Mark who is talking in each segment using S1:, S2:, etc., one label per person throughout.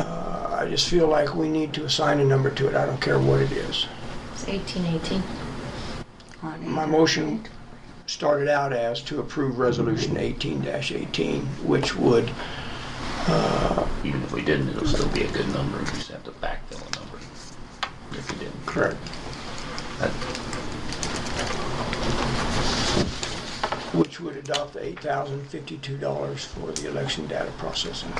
S1: I just feel like we need to assign a number to it. I don't care what it is.
S2: It's eighteen eighteen.
S1: My motion started out as to approve Resolution 18-18, which would,
S3: Even if we didn't, it'll still be a good number. We just have to backfill a number. If we didn't.
S1: correct,
S3: That-
S1: which would adopt the $8,052 for the election data processing.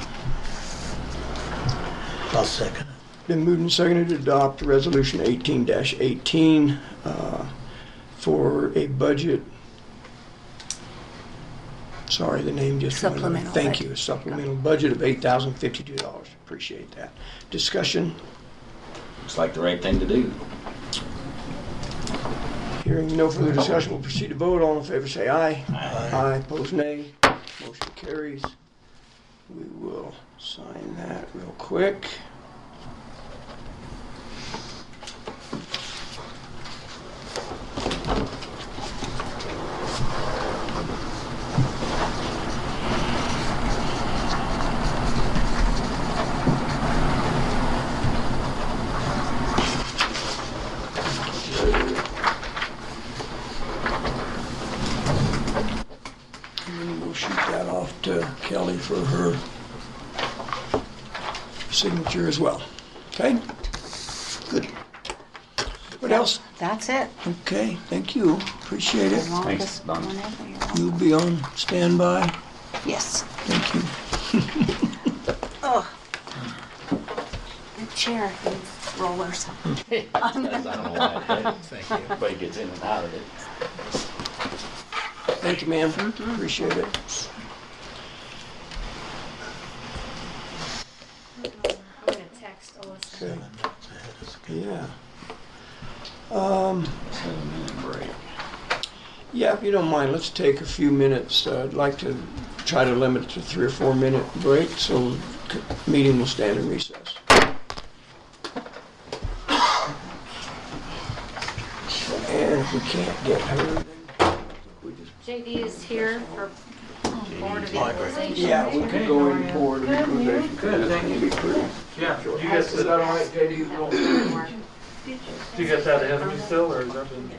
S4: I'll second it.
S1: Been moved and seconded to adopt Resolution 18-18 uh, for a budget, sorry, the name just... went away.
S5: Supplemental
S1: Thank
S5: budget.
S1: you, supplemental budget of $8,052. Appreciate that. Discussion,
S3: It's like the right thing to do.
S1: hearing no further discussion, we'll proceed to vote. All in favor, say aye.
S3: Aye.
S1: Aye, opposed, nay. Motion carries. We will sign that real quick. And We'll shoot that off to Kelly for her signature as well. Okay? Good. What else?
S5: That's it.
S1: Okay, thank you. Appreciate it.
S5: The longest
S3: Don.
S5: one ever, you're welcome.
S1: You'll be on standby.
S5: Yes.
S1: Thank you.
S5: Oh. The chair needs rollers.
S3: Because I don't know why I did it. Thank you. Everybody gets in and out of it.
S1: Thank you, ma'am. Appreciate it.
S2: I'm gonna text Alyssa.
S1: Okay. Yeah.
S3: Seven minute break.
S1: Yeah, if you don't mind, let's take a few minutes. Uh, I'd like to try to limit it to three or four minute break, so c- meeting will stand in recess. And if we can't get her, then we just,
S2: JD is here for Board of Equalization.
S1: yeah, we could go in for the equalization.
S6: Good, thank
S1: It'd be pretty.
S6: Yeah, you got
S1: Is that all right,
S6: that,
S1: JD?
S6: you got that avenue still, or is that been?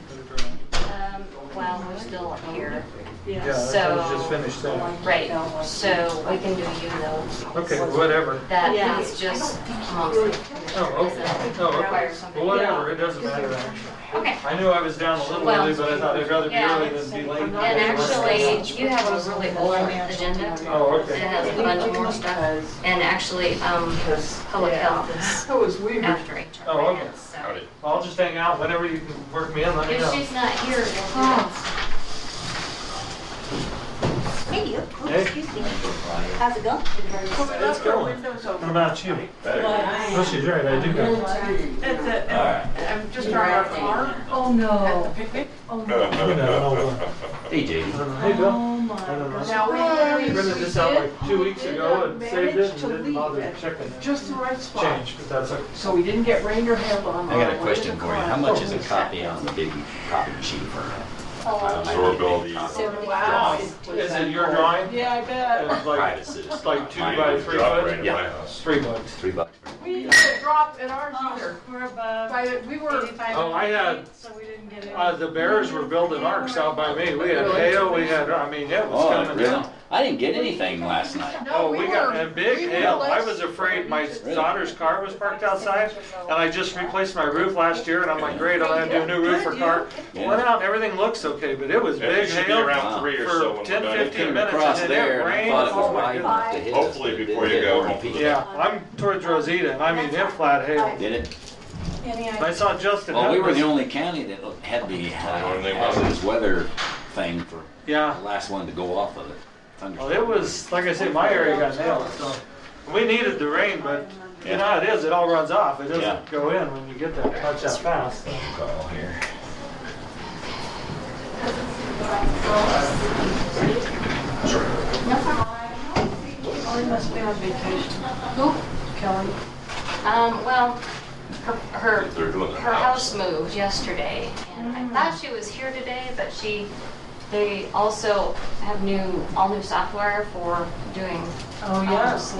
S2: Um, While we're still here,
S6: Yeah, that's I was just finished there.
S2: right, so we can do you though.
S6: Okay, whatever.
S2: That is just mostly.
S6: Oh, okay, oh, okay, well, whatever, it doesn't matter.
S2: Okay,
S6: I knew I was down a little
S2: Well,
S6: early, but I thought I'd rather be
S2: yeah.
S6: early than be late.
S2: and actually, you have a really old agenda.
S6: Oh,
S2: It
S6: okay,
S2: has a bunch more stuff, and actually, um, public health is after HR.
S6: Oh, okay.
S2: grants, so.
S6: well, I'll just hang out, whenever you can work me in, let me
S2: If
S6: know.
S2: she's not here, we'll
S5: Hey, you.
S6: Hey.
S5: Excuse me. How's it going?
S6: It's going, what about you? Oh, she's right, I do go.
S7: At the, I'm just driving our car. Oh, no. Oh, At the picnic.
S6: You know,
S3: Hey, JD.
S6: I'll- Hey, Bill,
S7: Now, we,
S6: I
S7: we
S6: printed this out
S7: did
S6: like two weeks ago and saved it
S7: manage
S6: and
S7: to
S6: didn't
S7: leave
S6: bother
S7: at
S6: checking the
S7: just the right spot.
S6: change, but that's okay.
S7: So we didn't get rain or hail on.
S3: I got a question for you. How much is a copy on the big copy machine for uh,
S2: So
S3: absorbability?
S2: many
S7: Wow.
S2: hours.
S6: Is it your drawing?
S7: Yeah, I
S6: It
S7: bet.
S6: was like
S3: Private citizen.
S6: like two
S3: Mine
S6: by
S3: was
S6: three
S3: dropped
S6: foot?
S3: right in my
S6: it's
S3: house.
S6: three bucks.
S3: Three bucks.
S7: We didn't get dropped in ours either.
S8: We're above
S7: By the, we were,
S6: Oh, I had,
S8: so we didn't get it.
S6: uh, the bears were building arcs out by me. We had hail, we had, I mean, it was
S3: Oh,
S6: coming
S3: really?
S6: down.
S3: I didn't get anything last night.
S6: Oh, we got
S7: were-
S6: a big
S7: we were
S6: hail. I
S7: less-
S6: was afraid my daughter's car was parked outside and I just replaced my roof last year and I'm like, great, I'll have to do a new roof for car.
S3: Yeah.
S6: Went out, everything looks okay, but it was
S9: Yeah, it
S6: big
S9: should be
S6: hail
S3: Wow.
S9: around three or so
S6: for
S9: when
S6: ten,
S9: we're done.
S6: fifteen minutes
S3: Across
S6: and then it
S3: there, and I
S6: rained.
S3: thought it
S6: Oh
S3: was
S6: my
S3: wide
S6: goodness.
S3: enough to hit us.
S9: Hopefully
S3: but it
S9: before you
S3: didn't.
S9: go home.
S6: Yeah, I'm towards Rosita and I mean, it flat hail.
S3: Did it?
S8: Any
S6: I
S8: idea?
S6: saw Justin.
S3: Well, we were
S6: Hudson.
S3: the only county that had the
S9: Or they
S3: hazardous weather thing for the
S6: Yeah.
S3: last one to go off of it.
S6: Well, Oh, it was, like I said, my area got nailed, so. We needed the rain, but you know how it is, it all runs off. It
S3: Yeah.
S6: doesn't go in when you get that touch that fast.
S3: Oh, here.
S7: Kelly must be on vacation.
S2: Who?
S7: Kelly.
S2: Um, well, her, her
S9: They're doing their
S2: her
S9: house.
S2: house moved yesterday, and I thought she was here today, but she, they also have new, all new software for doing
S7: Oh, yes.